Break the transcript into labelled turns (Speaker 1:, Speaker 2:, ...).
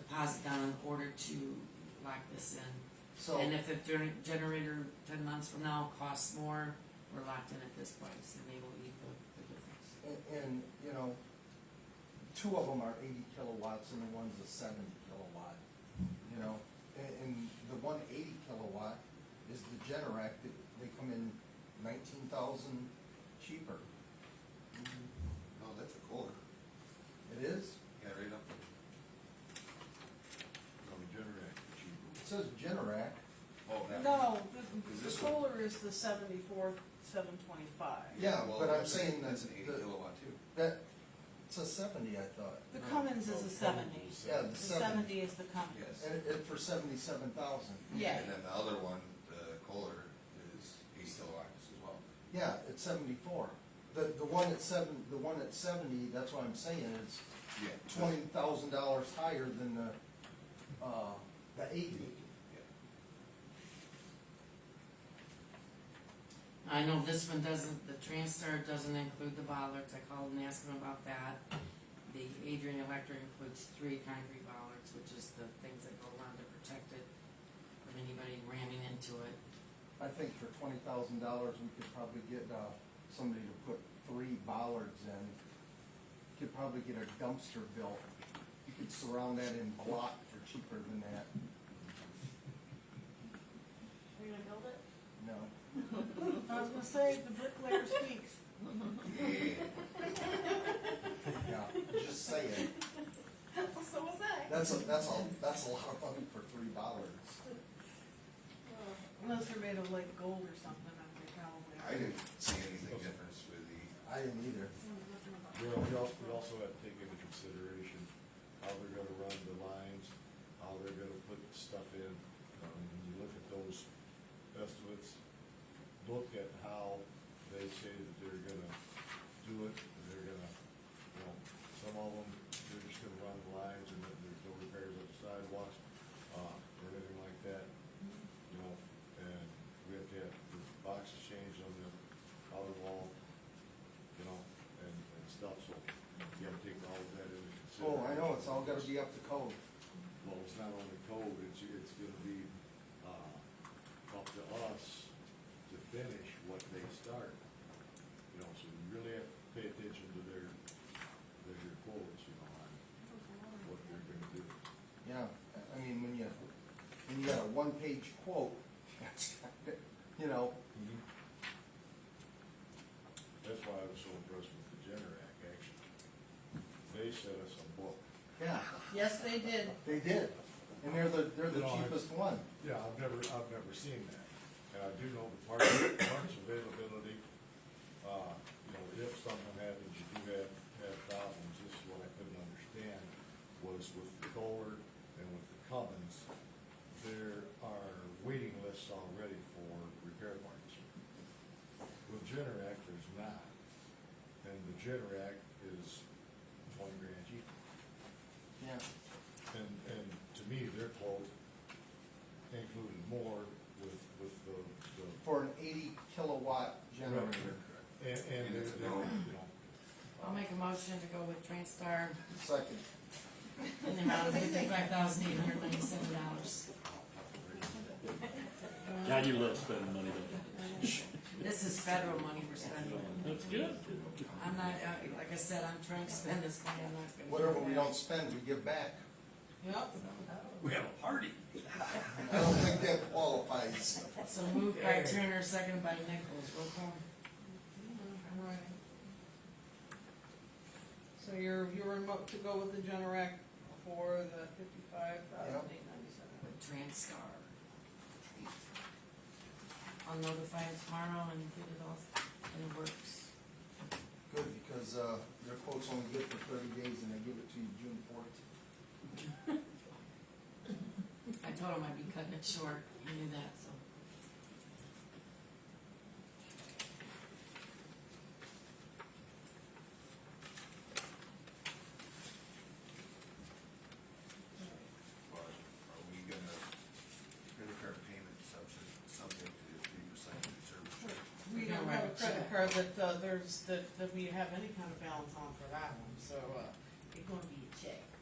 Speaker 1: deposit down in order to lock this in.
Speaker 2: So,
Speaker 1: And if the gener- generator ten months from now costs more, we're locked in at this price and they will eat the, the difference.
Speaker 2: and, and, you know, two of them are eighty kilowatts and the one's a seventy kilowatt, you know? And, and the one eighty kilowatt is the Generac, that they come in nineteen thousand cheaper.
Speaker 3: Oh, that's a quarter.
Speaker 2: It is?
Speaker 3: Yeah, right up. there. No, the generator, cheaper.
Speaker 2: It says Generac.
Speaker 3: Oh, that. one.
Speaker 4: No,
Speaker 3: Is
Speaker 4: the, the
Speaker 3: this one?
Speaker 4: solar is the seventy-four, seven twenty-five.
Speaker 2: Yeah,
Speaker 3: well,
Speaker 2: but I'm
Speaker 3: that's a-
Speaker 2: saying
Speaker 3: That's
Speaker 2: that
Speaker 3: an eighty
Speaker 2: the-
Speaker 3: kilowatt too.
Speaker 2: That, it's a seventy, I thought.
Speaker 4: The Cummins is a seventy.
Speaker 2: Yeah,
Speaker 4: The
Speaker 2: the seventy.
Speaker 4: seventy is the Cummins.
Speaker 3: Yes.
Speaker 2: And, it- it for seventy-seven thousand.
Speaker 4: Yeah.
Speaker 3: And then the other one, the Kohler, is eight kilowatts as well.
Speaker 2: Yeah, it's seventy-four. The, the one at seven, the one at seventy, that's what I'm saying, is
Speaker 3: Yeah.
Speaker 2: twenty thousand dollars higher than the, uh, the eighty.
Speaker 3: Yeah.
Speaker 1: I know this one doesn't, the Transtar doesn't include the bollards, I called and asked them about that. The Adrian Electric includes three concrete bollards, which is the things that go around to protect it from anybody ramming into it.
Speaker 2: I think for twenty thousand dollars, we could probably get, uh, somebody to put three bollards in. Could probably get a dumpster built. You could surround that in block for cheaper than that,
Speaker 4: Are you gonna build it?
Speaker 2: you know?
Speaker 4: I was gonna say, the bricklayer speaks.
Speaker 3: Yeah.
Speaker 2: Yeah, just saying.
Speaker 4: So was I.
Speaker 2: That's a, that's a, that's a lot of money for three dollars.
Speaker 4: Unless they're made of like gold or something, I think probably.
Speaker 3: I didn't see anything difference with the,
Speaker 2: I didn't either.
Speaker 5: You know, we also, we also have to take into consideration how they're gonna run the lines, how they're gonna put stuff in. Um, when you look at those estimates, look at how they say that they're gonna do it, and they're gonna, you know, some of them, they're just gonna run the lines and then there's no repairs on the sidewalks, uh, or anything like that. You know, and we have to have the boxes changed on the outer wall, you know, and, and stuff, so you gotta take all of that into
Speaker 2: Oh,
Speaker 5: consideration.
Speaker 2: I know, it's all gotta be up to code.
Speaker 5: Well, it's not only code, it's, it's gonna be, uh, up to us to finish what they start. You know, so you really have to pay attention to their, their quotes, you know, on what they're gonna do.
Speaker 2: Yeah, I- I mean, when you, when you got a one-page quote, that's, kinda- you know,
Speaker 5: That's why I was so impressed with the Generac, actually. They sent us a book.
Speaker 2: yeah,
Speaker 4: Yes, they did.
Speaker 2: they did. And they're the, they're the
Speaker 5: No, I-
Speaker 2: cheapest one.
Speaker 5: Yeah, I've never, I've never seen that. And I do know the parts, parts availability, uh, you know, if something happens, you do have, have problems. This is what I couldn't understand, was with the Kohler and with the Cummins, there are waiting lists already for repair parts. With Generac, there's not. And the Generac is twenty grand cheaper.
Speaker 2: Yeah,
Speaker 5: And, and to me, their quote included more with, with the, the.
Speaker 2: for an eighty kilowatt generator.
Speaker 5: And, and
Speaker 3: And
Speaker 5: they,
Speaker 3: it's
Speaker 5: they,
Speaker 3: a no.
Speaker 5: you know.
Speaker 1: I'll make a motion to go with Transtar
Speaker 2: Second,
Speaker 1: in the amount of fifty-five thousand eight hundred ninety-seven dollars.
Speaker 6: God, you love spending money, don't
Speaker 1: This is federal money we're spending.
Speaker 6: you? That's good.
Speaker 1: I'm not, uh, like I said, I'm trying to spend this money, I'm not gonna.
Speaker 2: whatever we don't spend, we give back.
Speaker 1: Yep,
Speaker 3: We have a party.
Speaker 2: I don't think that qualifies.
Speaker 1: so moved by Turner, second by Nichols, roll call.
Speaker 4: So you're, you're remote to go with the Generac for the fifty-five thousand eight ninety-seven.
Speaker 1: With Transtar. I'll notify it tomorrow and get it off in the works.
Speaker 2: Good, because, uh, their quote's only good for thirty days and they give it to you June fourteenth.
Speaker 1: I told him I'd be cutting it short, he knew that, so.
Speaker 3: But uh, are we gonna, credit card payment subject, subject to three percent of the service charge?
Speaker 4: We
Speaker 1: You're
Speaker 4: don't
Speaker 1: right,
Speaker 4: have a credit
Speaker 1: yeah.
Speaker 4: card that, uh, there's, that, that we have any kind of balance on for that one, so, uh, it's gonna be a check.